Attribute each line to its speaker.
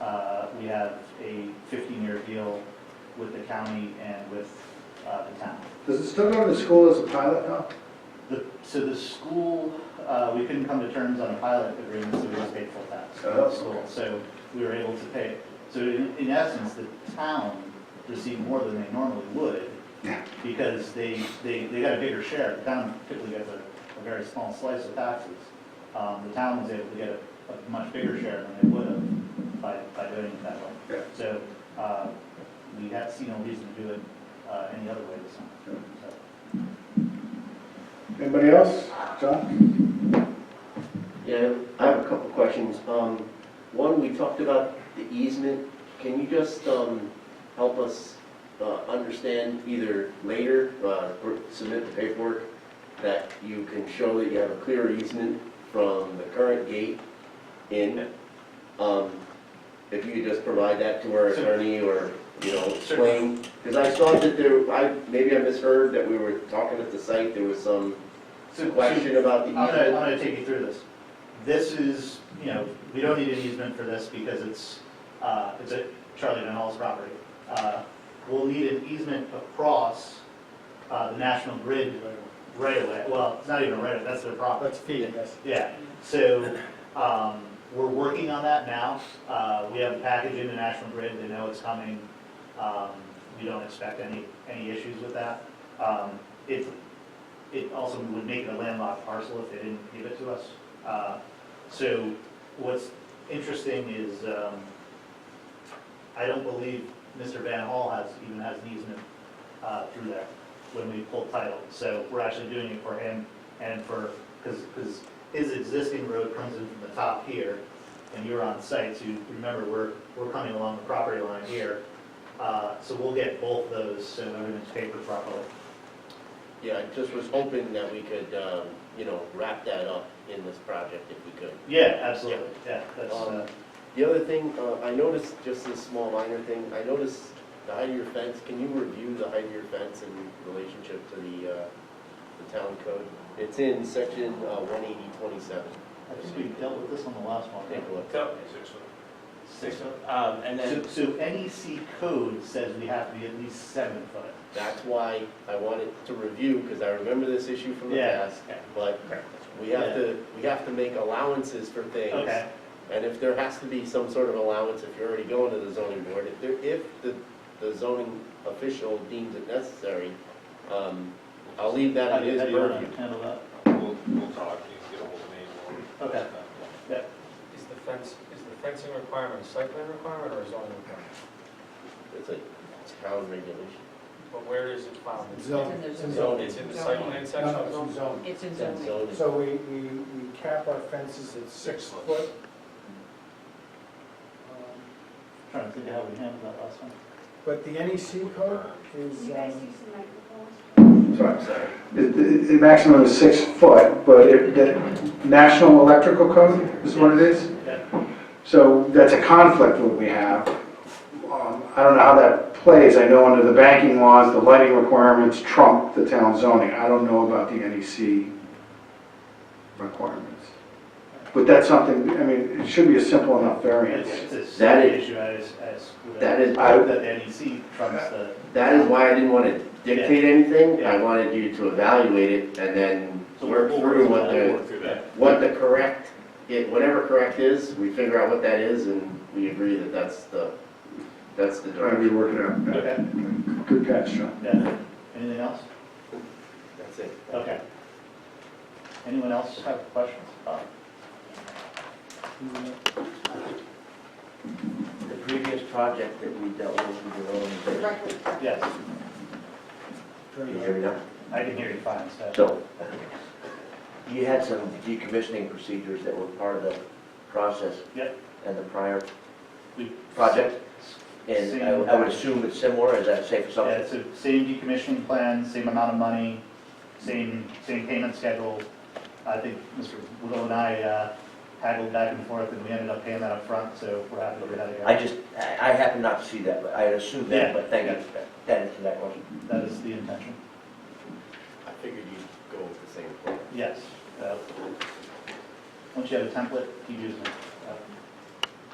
Speaker 1: uh, we have a fifteen-year deal with the county and with uh, the town.
Speaker 2: Does it still go to the school as a pilot now?
Speaker 1: The- So the school, uh, we couldn't come to terms on a pilot agreement, so we just paid full tax for
Speaker 2: Oh,
Speaker 1: the
Speaker 2: okay.
Speaker 1: school. So we were able to pay, so in in essence, the town received more than they normally would
Speaker 2: Yeah.
Speaker 1: because they, they, they got a bigger share. The town typically gets a, a very small slice of taxes. Um, The town was able to get a, a much bigger share than they would have by, by doing it that way.
Speaker 2: Yeah.
Speaker 1: So uh, we had, see no reason to do it uh, any other way this time. So-
Speaker 2: Anybody else? John?
Speaker 3: Yeah, I have a couple questions. Um, One, we talked about the easement. Can you just um, help us uh, understand either later, uh, or submit the paperwork, that you can show that you have a clear easement from the current gate in? Um, If you could just provide that to our attorney or, you know, explain. Because I thought that there, I, maybe I misheard that we were talking at the site, there was some
Speaker 1: So- so-
Speaker 3: question about the
Speaker 1: I'm gonna, I'm
Speaker 3: easement.
Speaker 1: gonna take you through this. This is, you know, we don't need an easement for this because it's, uh, it's at Charlie Van Hall's property. Uh, We'll need an easement across, uh, the National Grid right away. Well, it's not even a right away, that's their property.
Speaker 4: That's feed, yes.
Speaker 1: Yeah, so, um, we're working on that now. Uh, we have a package in the National Grid, they know it's coming. Um, we don't expect any, any issues with that. Um, it, it also would make it a landlocked parcel if they didn't give it to us. Uh, so what's interesting is, um, I don't believe Mr. Van Hall has, even has an easement, uh, through there when we pulled title. So we're actually doing it for him and for, because, because his existing road comes in from the top here, and you're on site, so you remember, we're, we're coming along the property line here. Uh, so we'll get both those, so everything's papered properly.
Speaker 3: Yeah, I just was hoping that we could, um, you know, wrap that up in this project if we could.
Speaker 1: Yeah, absolutely, yeah, that's, uh,
Speaker 3: The other thing, uh, I noticed, just a small minor thing, I noticed the height of your fence, can you review the height of your fence in relationship to the, uh, the town code? It's in section uh, one eighty twenty-seven.
Speaker 1: I think we dealt with this on the last one.
Speaker 3: Take a look.
Speaker 5: So, six foot, um, and
Speaker 1: So,
Speaker 5: then,
Speaker 1: so NEC code says we have to be at least seven foot.
Speaker 3: That's why I wanted to review, because I remember this issue from the
Speaker 1: Yeah.
Speaker 3: past. But we
Speaker 1: Yeah.
Speaker 3: have to, we have to make allowances for things.
Speaker 1: Okay,
Speaker 3: And if there has to be some sort of allowance, if you're already going to the zoning board, if there, if the, the zoning official deems it necessary, um, I'll leave
Speaker 1: how
Speaker 3: that
Speaker 1: do
Speaker 3: in
Speaker 1: you, how
Speaker 3: his
Speaker 1: do you wanna
Speaker 3: purview.
Speaker 1: handle that?
Speaker 5: we'll, we'll talk, you can get ahold of me. we'll-
Speaker 1: Okay. Yeah,
Speaker 4: Is the fence, is the fencing requirement a site plan requirement or a zoning requirement?
Speaker 3: It's a town regulation.
Speaker 4: But where is it found?
Speaker 6: Zoning. It's in the
Speaker 3: zoning.
Speaker 4: It's in the site plan section of
Speaker 6: No,
Speaker 4: zoning?
Speaker 6: it's zone.
Speaker 7: It's in
Speaker 3: That's
Speaker 7: zoning.
Speaker 3: zoning.
Speaker 6: So we, we, we cap our fences at six foot. Um,
Speaker 1: trying to think of how we handled that last one.
Speaker 6: But the NEC code is,
Speaker 7: You guys
Speaker 6: um,
Speaker 7: use the microphones?
Speaker 2: Sorry. The, the- the maximum is six foot, but it, the National Electrical Code is what it is?
Speaker 1: Yeah,
Speaker 2: So that's a conflict what we have. Um, I don't know how that plays. I know under the banking laws, the lighting requirements trump the town zoning. I don't know about the NEC requirements. But that's something, I mean, it should be a simple enough variance.
Speaker 1: It's, it's
Speaker 3: That
Speaker 1: an
Speaker 3: is-
Speaker 1: issue as, as.
Speaker 3: That is-
Speaker 1: I hope that E the NEC trumps the.
Speaker 3: That is why I didn't want to dictate anything, I
Speaker 1: Yeah.
Speaker 3: wanted you to evaluate it and then
Speaker 1: So we'll-
Speaker 3: work
Speaker 1: we'll
Speaker 3: through
Speaker 1: work
Speaker 3: what
Speaker 1: through that.
Speaker 3: the, what the correct, it, whatever correct is, we figure out what that is, and we agree that that's the, that's the
Speaker 2: Trying to
Speaker 3: direction.
Speaker 2: work it out.
Speaker 1: Okay,
Speaker 2: Good catch, John.
Speaker 1: yeah, anything else?
Speaker 3: That's it.
Speaker 1: Okay. Anyone else have questions? Uh,
Speaker 8: The previous project that we dealt with, we were on the road.
Speaker 7: Record.
Speaker 1: Yes,
Speaker 8: Can you hear me now?
Speaker 1: I can hear you fine, so.
Speaker 8: So, you had some decommissioning procedures that were part of the process
Speaker 1: Yep.
Speaker 8: and the prior
Speaker 1: We-
Speaker 8: project? And I I would assume it's similar, is that safe
Speaker 1: Yeah,
Speaker 8: assumption?
Speaker 1: it's the same decommissioning plan, same amount of money, same, same payment schedule. I think Mr. Woodall and I uh, haggled back and forth, and we ended up paying that up front. so we're happy to get that
Speaker 8: I
Speaker 1: again.
Speaker 8: just, I I happen not to see that, but I assume
Speaker 1: Yeah,
Speaker 8: that, but thank
Speaker 1: yeah.
Speaker 8: you. That is that question.
Speaker 1: That is the intention,
Speaker 3: I figured you'd go with the same plan.
Speaker 1: yes. uh, Once you have a template, keep using it.